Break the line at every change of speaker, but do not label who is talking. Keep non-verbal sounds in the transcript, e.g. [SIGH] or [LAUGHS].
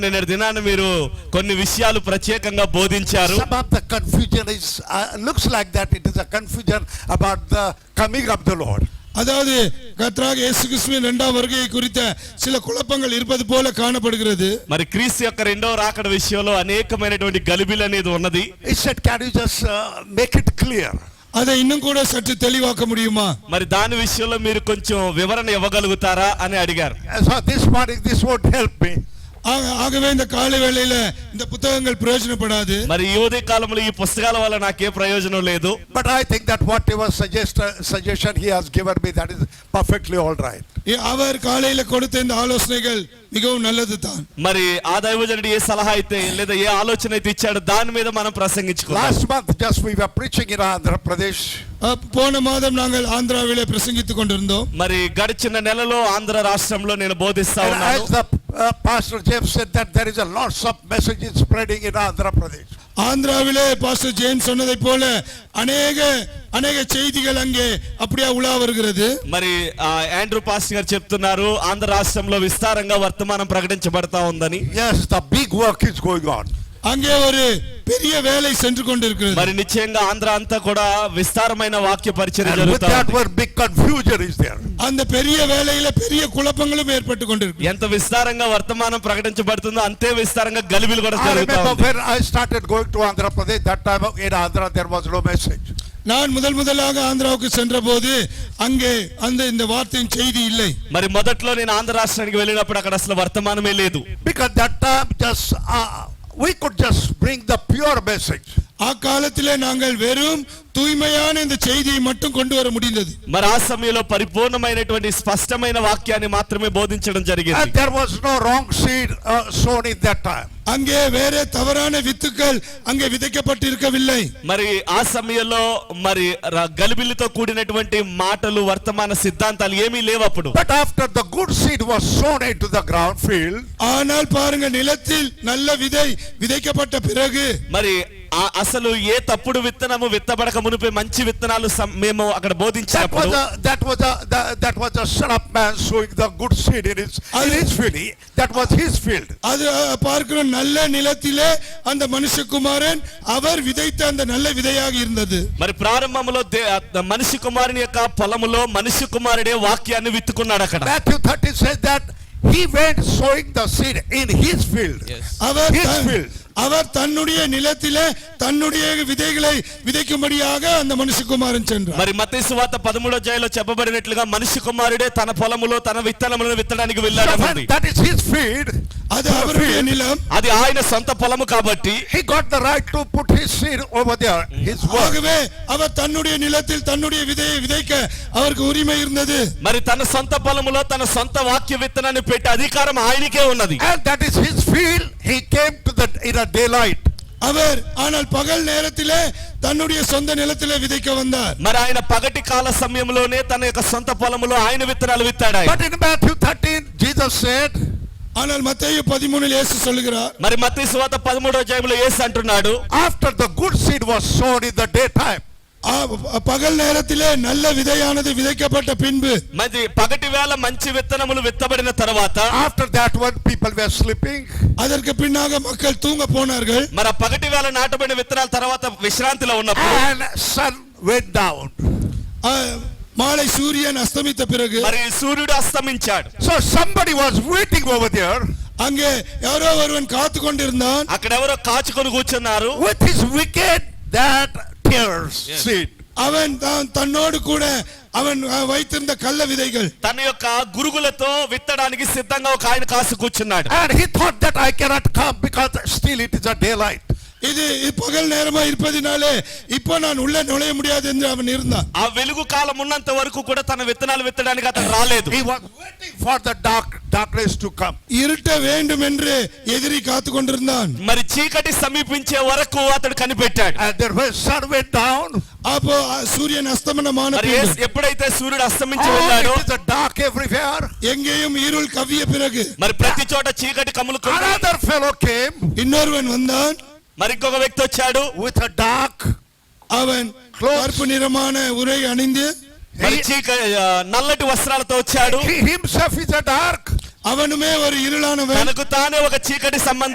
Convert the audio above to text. నిన్న దినాన మీరు కొన్ని విషయాలు ప్రత్యేకంగా బోధించారు
Some of the confusion is, uh, looks like that it is a confusion about the coming of the Lord.
அதாவது கத்ராக இயேசு கிறிஸ்துவின் இரண்டாம் வருகை குறித்த சில குழப்பங்கள் இருப்பது போல காணப்படுகிறது
మరి క్రీస్తు యొక్క రెండవ రాకడ విషయంలో అనేకమైనటువంటి గలిబిలు అనేది ఉన్నది
He said, can you just uh, make it clear?
அதை இன்னும் கூட சற்று தெளிவாக்க முடியுமா
మరి దాని విషయంలో మీరు కొంచెం వివరణ ఇవ్వగలుగుతారా అని అడిగారు
And so this morning, this won't help me.
ஆக- ஆகவே இந்த காலை வேளையில இந்த புத்தகங்கள் பிரயோஜனப்படாது
మరి ఈ ఉదయ కాలంలో ఈ పుస్తకాల వల్ల నాకే ప్రయోజనం లేదు
But I think that whatever suggest, uh, suggestion he has given me, that is perfectly all right.
இ- அவர் காலையில கொடுத்த இந்த ஆலோசனைகள் మిகவும் நல்லது தான்
మరి ఆ దైవజనుడు ఏ సలహా అయితే లేదా ఏ ఆలోచన అయితే ఇచ్చాడో దాని మీద మనం ప్రసంగించుకోవాలి
Last month, just we were preaching in Andhra Pradesh.
அ- போன மாதம் நாங்கள் ஆந்திராவிலே பிரசங்கித்துக் கொண்டிருந்தோம்
మరి గడిచిన నెలలో ఆంధ్ర రాష్ట్రంలో నేను బోధిస్తా
And
ఉన్నాను
as the uh, Pastor James said that there is a lots of messages spreading in Andhra Pradesh.
ஆந்திராவிலே பாஸ்டர் ஜேம்ஸ் சொன்னதைப் போல அநேக அநேக செய்திகள் அங்கே அப்படியே உலா வருகிறது
మరి ఆ, యాండ్రూ పాస్టర్ గారు చెప్తున్నారు ఆంధ్ర రాష్ట్రంలో విస్తారంగా వర్తమానం ప్రకటించబడతా ఉందని
Yes, the big work is going on.
அங்கே ஒரு பெரிய வேலை சென்று கொண்டிருக்கிறது
[LAUGHS] మరి నిశ్చయంగా ఆంధ్ర అంతా కూడా విస్తారమైన వాక్య పరిచయం
And with
జరుగుతా
that
ఉంది.
one big confusion is there.
அந்த பெரிய వేலையில பெரிய குழப்பங்களும் ஏற்பட்டு கொண்டிருக்கு
ఎంత విస్తారంగా వర్తమానం ప్రకటించబడుతుందో అంతే విస్తారంగా గలిబిలు కూడా
I
జరుగుతా
Ah, remember
ఉంది.
when I started going to Andhra Pradesh, that time in Andhra there was no message.
நான் முதல் முதலாக ஆந்திராவுக்கு சென்றபோது அங்கே அந்த இந்த வார்த்தையின் செய்தி இல்லை
మరి మొదట్లో నేను ఆంధ్ర రాష్ట్రానికి వెళ్ళినప్పుడు అక్కడ అసలు వర్తమానమే లేదు
Because that time just, uh, we could just bring the pure message.
அக்காலத்திலே நாங்கள் வெறும் தூய்மையான இந்த செய்தியை மட்டும் கொண்டு வர முடிந்தது
మరి ఆ సమయంలో పరిపూర్ణమైనటువంటి స్పష్టమైన వాక్యాన్ని మాత్రమే బోధించడం
And
జరిగింది
there was no wrong seed uh, sown in that time.
அங்கே வேற தவறான வித்துக்கள் அங்கே விதைக்கப்பட்டிருக்கவில்லை
మరి ఆ సమయంలో మరి ర- గలిబిలితో కూడినటువంటి మాటలు వర్తమాన సిద్ధాంతాలు ఏమీ లేవు అప్పుడు
But after the good seed was sown into the ground field,
ஆனால் பாருங்க நிலத்தில் நல்ல விதை விதைக்கப்பட்ட பிறகு
మరి ఆ- అసలు ఏ తప్పుడు విత్తనము విత్తబడక మునిపే మంచి విత్తనాలు సం- మేము అక్కడ
That was
బోధించినప్పుడు
a, that was a, the- that was a son of man sowing the good seed in his, in his field. He- That was his field.
அது அஹ், பார்க்கிறோம் நல்ல நிலத்திலே அந்த மனுஷகுமாரன் அவர் விதைத்த அந்த நல்ல விதையாக இருந்தது
మరి ప్రారంభంలో దే- ఆ మనిషి కుమారుని యొక్క పొలములో మనిషి కుమారుడే వాక్యాన్ని విత్తుకున్నాడు అక్కడ
Matthew thirty says that he went sowing the seed in his field.
அவர்
His
தன்-
field.
அவர் தன்னுடைய நிலத்திலே தன்னுடைய விதைகளை விதைக்கும்படியாக அந்த மனுஷகுமாரன் சென்றார்
మరి మతేసు వార్త పదమూడో జైలో చెప్పబడినట్లుగా మనిషి కుమారుడే తన పొలములో తన విత్తనములను విత్తడానికి
So
వెళ్ళాడు
when that is his field.
அது அவருடைய நிலம்
అది ఆయన సొంత పొలము కాబట్టి
He got the right to put his seed over there, his work.
ஆகவே அவர் தன்னுடைய நிலத்தில் தன்னுடைய விதையை விதைக்க அவருக்கு உரிமை இருந்தது
మరి తన సొంత పొలములో తన సొంత వాక్య విత్తనాన్ని పెట్టే అధికారం ఆయనకే ఉన్నది
And that is his field. He came to the, in a daylight.
அவர் ஆனால் பகல் நேரத்திலே தன்னுடைய சொந்த நிலத்திலே விதைக்க வந்தார்
మరి ఆయన పగటి కాల సమయంలోనే తన యొక్క సొంత పొలములో ఆయన విత్తనాలు విత్తాడు ఆయన.
But in Matthew thirteen, Jesus said,
ஆனால் மத்தேயு பதிமூணில் இயேசு சொல்லுகிறார்
మరి మత్తయి సువాత పదమూడో అధ్యాయంలో యేసు అంటున్నాడు
after the good seed was sown in the daytime,
"ஆ, பகல் நேரத்திலே நல்ல விதையானது விதைக்கப்பட்ட பின்பு
మరి పగటి వేళ మంచి విత్తనములు విత్తబడిన తర్వాత
after that when people were sleeping,
அதற்கு பின்னாக மக்கள் தூங்க போனார்கள்
మరి ఆ పగటి వేళ నాటబడిన విత్తనాల తర్వాత విశ్రాంతిలో ఉన్నప్పుడు
and sun went down.
ஆ, மாலை சூரியன் அஸ்தமித்த பிறகு
మరి సూర్యుడు అస్తమించాడు
So somebody was waiting over there
அங்கே யாரோ ஒருவன் காத்து கொண்டிருந்தான்
అక్కడెవరో కాచుకొని కూర్చున్నారు
with his wicked that tears seed.
அவன் தான் தன்னோடு கூட அவன் அஹ், வைத்திருந்த கள்ள விதைகள்
తన యొక్క గురుగులతో విత్తడానికి సిద్ధంగా ఒక ఆయన కాసు కూర్చున్నాడు
And he thought that I cannot come because still it is a daylight.
இது இது பகல் நேரமா இருப்பதினாலே இப்போ நான் உள்ளே நுழைய முடியாது என்று அவன் இருந்தான்
ఆ వెలుగు కాలం ఉన్నంత వరకు కూడా తన విత్తనాలు విత్తడానికి అతను రాలేదు
He was waiting for the dark darkness to come.
இருட்ட வேண்டும் என்று எதிரி காத்து கொண்டிருந்தான்
మరి చీకటి సమీపించే వరకు అతడు కనిపెట్టాడు
And then when sun went down,
அப்போ அஹ், சூரியன் அஸ்தமனமான
మరి
பின்பு
యేసు ఎప్పుడైతే సూర్యుడు అస్తమించి వెళ్ళాడో
oh, it is a dark everywhere.
எங்கேயும் இருள் கவ்விய பிறகு
మరి ప్రతి చోట చీకటి కమ్ములుకున్నాడు
Another fellow came
இன்னொருவன் வந்தான்
మరి ఇంకొక వ్యక్తి వచ్చాడు
with a dark.
அவன்
Clothes.
கருப்பு நிறமான உரை அணிந்து
మరి చీక ఆ, నల్లటి వస్త్రాలతో వచ్చాడు
He himself is a dark.
அவனுமே ஒரு இருளானவன்
తనకు తానే ఒక చీకటి సంబంధం